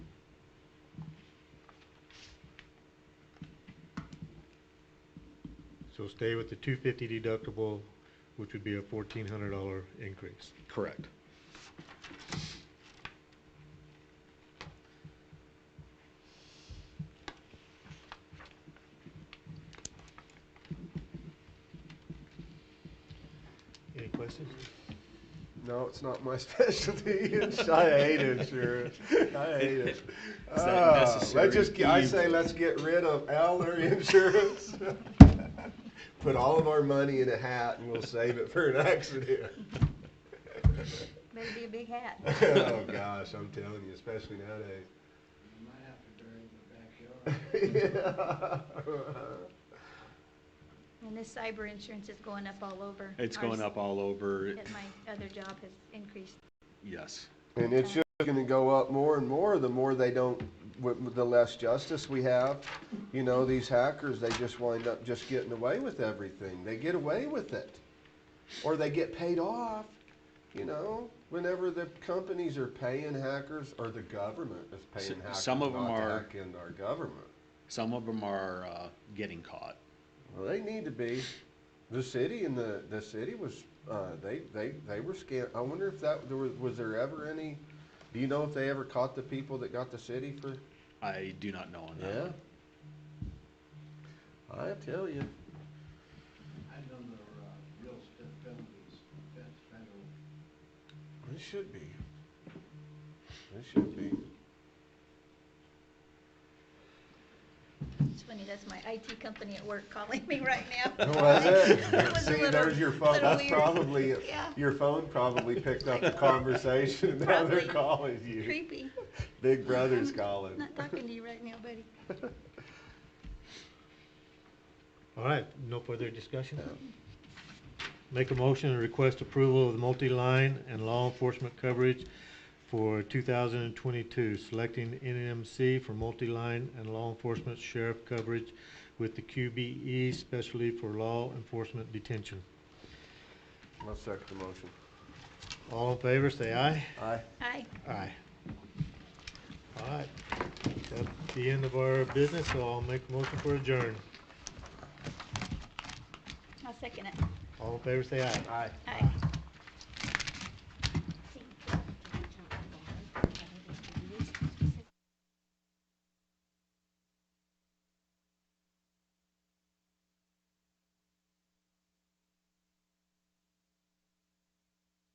So stay with the two fifty deductible, which would be a fourteen hundred dollar increase. Correct. Any questions? No, it's not my specialty. I hate insurance. I hate it. Is that Ah, necessary Let's just, I say, evil? let's get rid of Eller Insurance. Put all of our money in a hat and we'll save it for an accident. Better be a big hat. Oh, gosh, I'm telling you, especially nowadays. You might have to bury the backyard. And this cyber insurance is going up all over. It's Ours going up all over, At my other job has increased. yes. And it's just gonna go up more and more, the more they don't, wi- the less justice we have. You know, these hackers, they just wind up just getting away with everything. They get away with it. Or they get paid off, you know, whenever the companies are paying hackers, or the government is paying S- hackers some not of 'em to are- hack into our government. Some of them are uh, getting caught. Well, they need to be. The city and the, the city was, uh, they, they, they were scam, I wonder if that, there was, was there ever any, do you know if they ever caught the people that got the city for? I do not know on that. one. I tell you. I done the, uh, real estate penalties, that's federal. It should be. It should be. It's funny, that's my IT company at work calling me right now. Who was That it? was a See, little- there's your phone, little that's weird. probably, Yeah. your phone probably picked up the conversation, and now they're Probably. calling you. Creepy. Big brother's calling. Not talking to you right now, buddy. All right, no further discussion? Make a motion and request approval of the multi-line and law enforcement coverage for two thousand and twenty-two, selecting NMC for multi-line and law enforcement sheriff coverage with the QBE specially for law enforcement detention. I'll second the motion. All in favor, say aye. Aye. Hi. Aye. All right, that's the end of our business, so I'll make a motion for adjourn. I'll second it. All in favor, say aye. Aye. Hi.